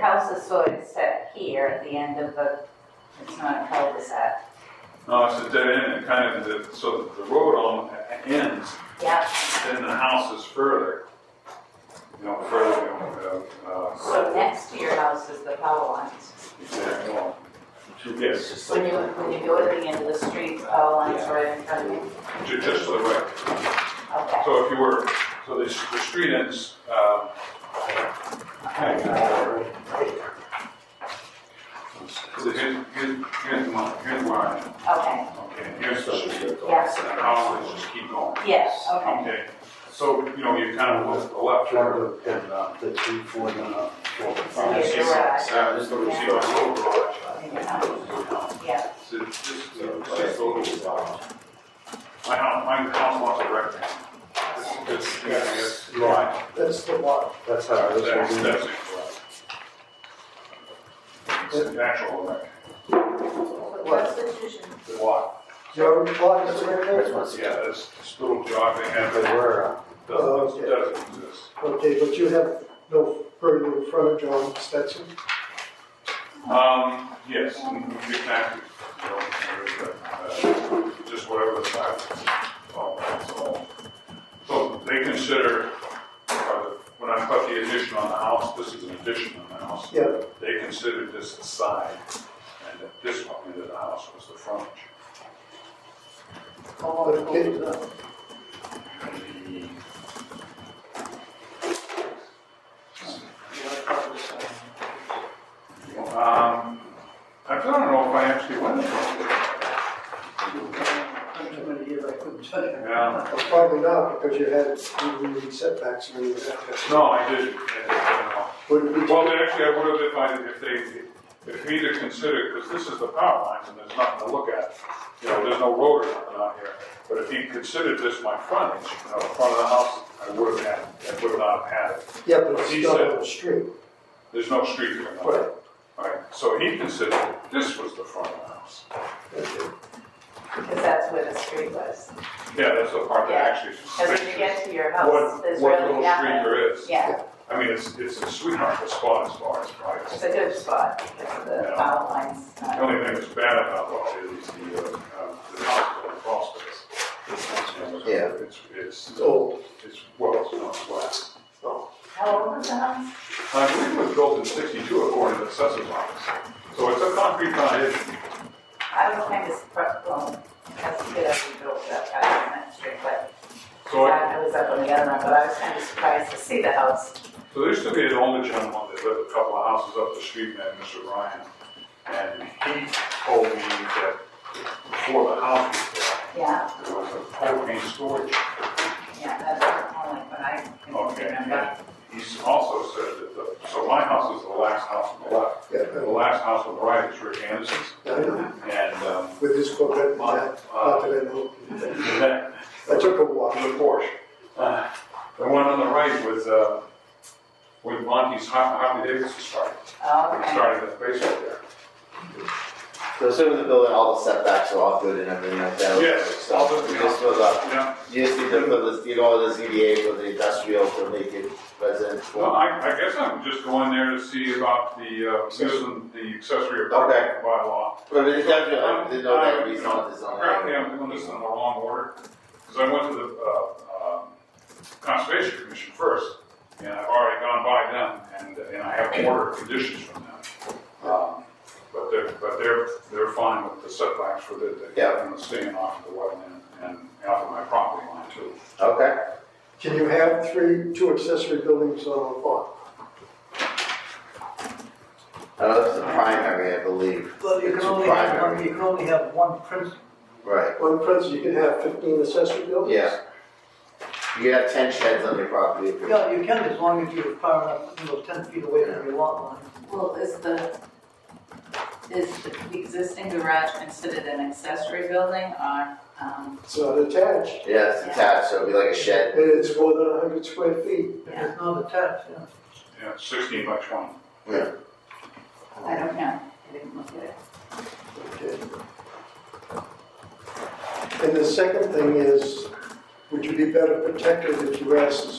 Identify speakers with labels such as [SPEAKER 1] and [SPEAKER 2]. [SPEAKER 1] house is sort of set here at the end of the, it's not a cul-de-sac.
[SPEAKER 2] No, it's a dead end, and kind of, the- so the road on, ends,
[SPEAKER 1] Yep.
[SPEAKER 2] then the house is further. You know, further, you know, uh,
[SPEAKER 1] So next to your house is the power lines.
[SPEAKER 2] exactly. Yes,
[SPEAKER 1] When you, when you go to the end of the street, the power lines are right in front of you.
[SPEAKER 2] ju- just to the right.
[SPEAKER 1] Okay.
[SPEAKER 2] So if you were, so the, the street ends, um, so here's, here's, here's my, here's where I am.
[SPEAKER 1] Okay,
[SPEAKER 2] Okay, here's the street,
[SPEAKER 1] yes,
[SPEAKER 2] and the house is just keep going.
[SPEAKER 1] yes, okay.
[SPEAKER 2] Okay, so, you know, you kind of look to the left, or,
[SPEAKER 3] Trevor and uh, the two for the, uh, for the
[SPEAKER 1] So here's your
[SPEAKER 2] uh,
[SPEAKER 1] garage.
[SPEAKER 2] this is what you see my little garage.
[SPEAKER 1] and your house. Yeah,
[SPEAKER 2] So this, this is a little, uh, my house, my house wants a rectangle. This, this, this, this, right.
[SPEAKER 3] That's the lot. That's how
[SPEAKER 2] That's,
[SPEAKER 3] this
[SPEAKER 2] that's
[SPEAKER 3] will be.
[SPEAKER 2] it. It's the actual one,
[SPEAKER 1] what's the decision?
[SPEAKER 2] the lot,
[SPEAKER 3] Your lot is right there?
[SPEAKER 2] yeah, this, this little jog they have,
[SPEAKER 3] But
[SPEAKER 2] that
[SPEAKER 3] we're, uh,
[SPEAKER 2] doesn't, doesn't exist.
[SPEAKER 4] Okay, but you have no further frontage on Stetson?
[SPEAKER 2] Um, yes, and we get back to, you know, there is a, uh, just whatever the size is, all that, so. So they consider, uh, when I put the addition on the house, this is an addition on the house.
[SPEAKER 4] Yeah.
[SPEAKER 2] They considered this the side, and that this one into the house was the frontage.
[SPEAKER 4] Okay.
[SPEAKER 2] Um, I don't know if I actually went. Yeah,
[SPEAKER 4] Well, Uh, Probably not, because you had, you needed setbacks and you
[SPEAKER 2] no, I didn't, I
[SPEAKER 4] Wouldn't
[SPEAKER 2] didn't
[SPEAKER 4] be,
[SPEAKER 2] know. Well, actually, I would have if I, if they, if he'd have considered, because this is the power lines and there's nothing to look at. You know, there's no road or nothing out here, but if he considered this my frontage, you know, in front of the house, I would have had, I would not have had it.
[SPEAKER 4] yeah, but it's
[SPEAKER 2] He
[SPEAKER 4] not
[SPEAKER 2] said-
[SPEAKER 4] on the street.
[SPEAKER 2] There's no street here. no.
[SPEAKER 4] Right.
[SPEAKER 2] Alright, so he considered this was the front of the house.
[SPEAKER 1] Because that's where the street was.
[SPEAKER 2] Yeah, that's the part that
[SPEAKER 1] Yeah.
[SPEAKER 2] actually.
[SPEAKER 1] Because when you get to your house,
[SPEAKER 2] What,
[SPEAKER 1] there's
[SPEAKER 2] what little
[SPEAKER 1] really
[SPEAKER 2] street
[SPEAKER 1] nothing.
[SPEAKER 2] there is.
[SPEAKER 1] Yeah,
[SPEAKER 2] I mean, it's, it's a sweetheart of a spot as far as price.
[SPEAKER 1] it's a good spot because of the
[SPEAKER 2] Yeah.
[SPEAKER 1] power lines.
[SPEAKER 2] The
[SPEAKER 1] uh,
[SPEAKER 2] only thing that's bad about it is the, uh, uh, the hospital across this.
[SPEAKER 3] Yeah.
[SPEAKER 2] It's, it's,
[SPEAKER 4] It's old.
[SPEAKER 2] it's, well, it's not flat.
[SPEAKER 1] How old was the house?
[SPEAKER 2] I believe it was built in sixty-two according to the assessor's office. So it's a concrete foundation.
[SPEAKER 1] I was kind of, pro- well, that's a good idea, built that house on that street, but
[SPEAKER 2] So I,
[SPEAKER 1] I was up on the other one, but I was kind of surprised to see the house.
[SPEAKER 2] So there used to be an older gentleman that lived a couple of houses up the street named Mr. Ryan. And he told me that before the house was
[SPEAKER 1] Yeah,
[SPEAKER 2] built, there was a propane storage.
[SPEAKER 1] yeah, that's the only one I can
[SPEAKER 2] Okay,
[SPEAKER 1] remember.
[SPEAKER 2] and he's also said that the, so my house is the last house on the left.
[SPEAKER 4] Yeah,
[SPEAKER 2] The last house on the right is Rick Anderson's.
[SPEAKER 4] I know,
[SPEAKER 2] And, um,
[SPEAKER 4] with his Corvette, and
[SPEAKER 2] my,
[SPEAKER 4] that, not
[SPEAKER 2] uh,
[SPEAKER 4] that I know.
[SPEAKER 2] that,
[SPEAKER 4] I took a
[SPEAKER 2] the
[SPEAKER 4] walk.
[SPEAKER 2] Porsche. Uh, The one on the right was, uh, when Monty's Har- Harley Davidson started. He
[SPEAKER 1] Okay,
[SPEAKER 2] started at the basement there.
[SPEAKER 5] So assuming the building, all the setbacks are all good and everything like that.
[SPEAKER 2] Yes,
[SPEAKER 5] So
[SPEAKER 2] all the-
[SPEAKER 5] you just put the,
[SPEAKER 2] Yeah,
[SPEAKER 5] you just need to put the, you know, the ZBA for the industrial to make it residential.
[SPEAKER 2] Well, I, I guess I'm just going there to see about the, uh, using the accessory apartment bylaw.
[SPEAKER 5] But it's definitely, I didn't know that would be something that's on
[SPEAKER 2] Apparently, I'm doing this in the wrong order, because I went to the, uh, um, Conservation Commission first, and I've already gone by them, and, and I have order conditions from them. Um, But they're, but they're, they're fine with the setbacks for the, the,
[SPEAKER 5] Yeah.
[SPEAKER 2] and the staying off the wetland and off of my property line too.
[SPEAKER 5] Okay.
[SPEAKER 4] Can you have three, two accessory buildings on a lot?
[SPEAKER 5] Uh, this is primary, I believe.
[SPEAKER 6] Well, you can
[SPEAKER 5] It's
[SPEAKER 6] only have
[SPEAKER 5] primary.
[SPEAKER 6] one, you can only have one principal.
[SPEAKER 5] Right,
[SPEAKER 4] One president, you can have fifteen accessory buildings?
[SPEAKER 5] yeah. You can have ten sheds on your property if you
[SPEAKER 6] Yeah, you can as long as you're far enough, you know, ten feet away from your lot line.
[SPEAKER 1] well, is the, is the existing garage considered an accessory building or, um,
[SPEAKER 4] It's not attached,
[SPEAKER 5] Yeah, it's attached, so it'd be like a shed.
[SPEAKER 4] and it's more than hundred square feet.
[SPEAKER 6] If it's not attached, yeah.
[SPEAKER 2] Yeah, sixteen by twenty.
[SPEAKER 1] I don't know, I didn't look at it.
[SPEAKER 4] Okay. And the second thing is, would you be better protected if you asked the